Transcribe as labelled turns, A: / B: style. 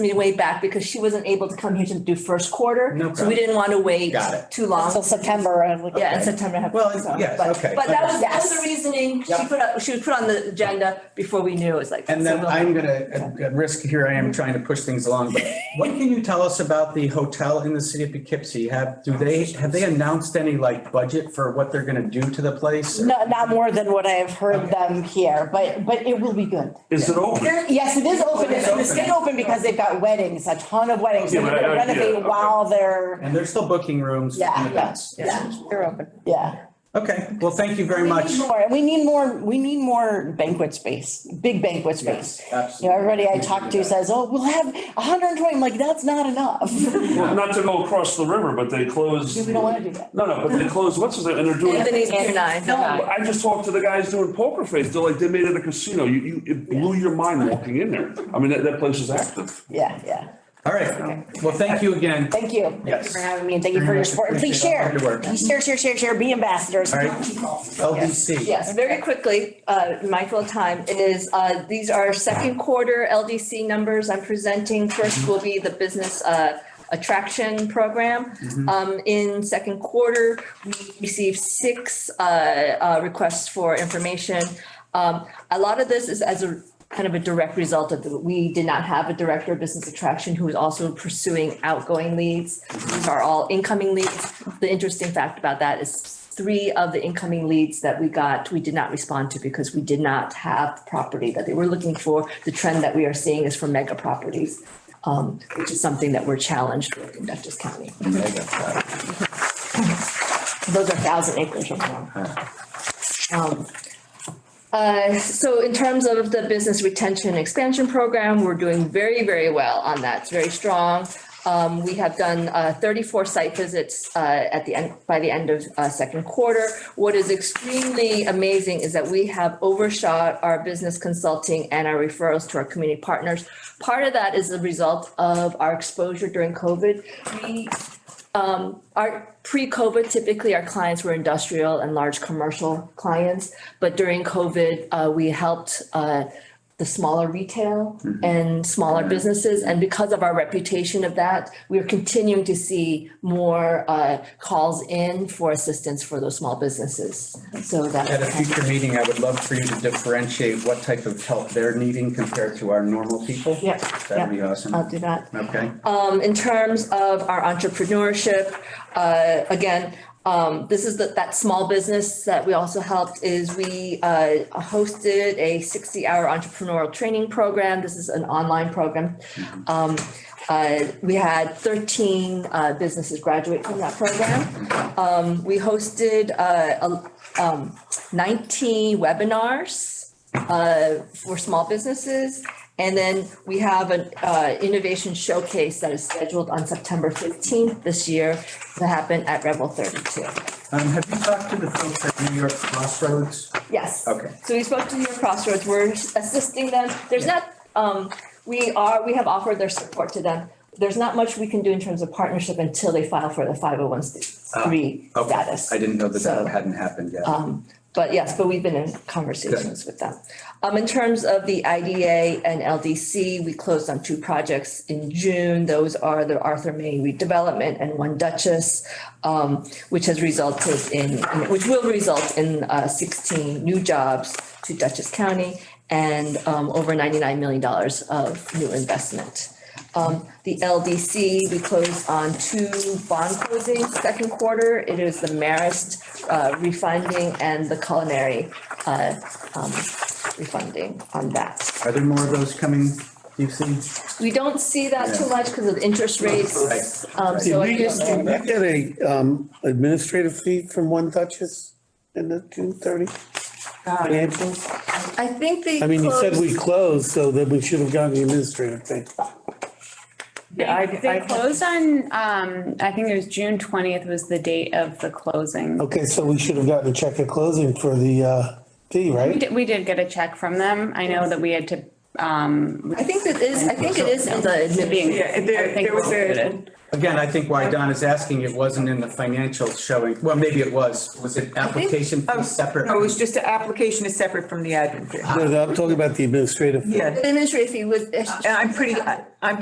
A: me way back because she wasn't able to come here to do first quarter.
B: No
A: So we
B: problem.
A: didn't want to wait
B: Got it.
A: too long.
C: Until September. and we-
A: Yeah, in September. I have-
B: Well, it's-
A: so,
B: yes,
A: but-
B: okay.
A: But that was, that was the
C: Yes.
A: reasoning. She
B: Yep.
A: put up, she was put on the agenda before we knew. It was like.
B: And
A: so
B: then
A: we'll-
B: I'm gonna, at- at risk here, I
C: Mm-hmm.
B: am trying to push things along, but what can you tell us about the hotel in the city of Poughkeepsie? Have, do they, have they announced any like budget for what they're gonna do to the place?
C: No, not more than what I have heard
B: Okay.
C: them here, but, but it will be good.
D: Is it open?
C: Yes, it is open.
B: It's
C: It's
B: open.
C: it's been open because they've got weddings, a ton of weddings. They're
D: Yeah, but I-
C: gonna
D: I- yeah,
C: renovate
D: okay.
C: while they're,
B: And they're still booking rooms for
C: Yeah, yeah,
B: events.
C: yeah,
E: They're open.
C: yeah.
B: Okay, well, thank you very
C: We
B: much.
C: need more, and we need more, we need more banquet space, big banquet space. You know,
B: Absolutely.
C: everybody I talk to says, oh, we'll have hundred and twenty, I'm like, that's not enough.
D: Well, not to go across the river, but they closed.
C: We don't wanna do that.
D: No, no, but they closed, what's his, and they're doing.
A: Anthony's here now.
D: I just talked to the guys doing poker face. They're like, they made it a casino. You, you, it blew your mind walking in there. I mean, that, that place is active.
C: Yeah, yeah.
B: All right, well, thank you again.
C: Thank you.
B: Yes.
C: Thank you for having me and thank you
B: Very
C: for your
B: much
C: support. And Please
B: appreciate all
C: share,
B: your work.
C: please share, share, share, share, be ambassadors.
B: All right,
C: Yes.
B: LDC.
A: Yes, very quickly, uh, mindful of time, it is, uh, these are second quarter LDC numbers I'm presenting. First will be the business, uh, attraction program.
B: Mm-hmm.
A: Um, in second quarter, we received six, uh, uh, requests for information. Um, a lot of this is as a kind of a direct result of, the- we did not have a director of business attraction who was also pursuing outgoing leads. These are all incoming leads. The interesting fact about that is three of the incoming leads that we got, we did not respond to because we did not have the property that they were looking for. The trend that we are seeing is for mega properties, um, which is something that we're challenged with in Dutchess County. Those are thousand acres or more. Um, uh, So in terms of the business retention expansion program, we're doing very, very well on that. It's very strong. Um, We have done uh, 34 site visits uh, at the end, by the end of uh, second quarter. What is extremely amazing is that we have overshot our business consulting and our referrals to our community partners. Part of that is a result of our exposure during COVID. We our pre-COVID, typically our clients were industrial and large commercial clients, but during COVID, uh, we helped uh, the smaller retail and smaller businesses. And because of our reputation of that, we are continuing to see more uh, calls in for assistance for those small businesses. So that.
B: At a future meeting, I would love for you to differentiate what type of help they're needing compared to our normal people.
A: Yeah,
B: That'd be
A: yeah.
B: awesome.
A: I'll do that.
B: Okay.
A: Um, in terms of our entrepreneurship, uh, again, um, this is that, that small business that we also helped is we, uh, hosted a sixty-hour entrepreneurial training program. This is an online program. Um, uh, we had thirteen, uh, businesses graduate from that program. Um, we hosted, uh, a- um, nineteen webinars uh, for small businesses. And then we have an uh, innovation showcase that is scheduled on September 15th this year to happen at Rebel 32.
B: Um, have you talked to the folks at New York Crossroads?
A: Yes.
B: Okay.
A: So we spoke to your crossroads. We're assisting them. There's not, um, we are, we have offered their support to them. There's not much we can do in terms of partnership until they file for the 501c3
B: Ah, Okay.
A: status.
B: I didn't know that
A: So-
B: that hadn't happened yet.
A: Um, But yes, but we've been in conversations with them. Um, in terms of the IDA and LDC, we closed on two projects in June. Those are the Arthur May redevelopment and One Duchess, um, which has resulted in, which will result in, uh, sixteen new jobs to Dutchess County and, um, over ninety-nine million dollars of new investment. Um, the LDC, we closed on two bond closings second quarter. It is the Marist uh, refunding and the culinary uh, um, refunding on that.
B: Are there more of those coming, do you see?
A: We don't see that too much because of interest rates. Um,
B: Right.
A: so I
F: Did
A: don't
F: we
A: know.
F: get a um, administrative fee from One Duchess in the June thirty financials?
A: I think they.
F: I mean, you said we
A: closed-
F: closed, so then we should have gotten the administrative fee.
A: Yeah, I- I-
E: They closed on, um, I think it was June twentieth was the date of the closing.
F: Okay, so we should have gotten a check at closing for the uh, fee,
E: We
F: right?
E: did, we did get a check from them. I know that we had to, um.
A: I think that is, I think it is in the
E: being-
A: admin.
E: I think it was included.
B: Again, I think why Don is asking, it wasn't in the financial showing, well, maybe it was, was it application
G: Oh,
B: fee separate?
G: No, it was just the application is separate from the admin fee.
F: No, no, I'm talking about the administrative fee.
G: Yeah,
A: Administrative fee was.
G: and I'm pretty, I- I'm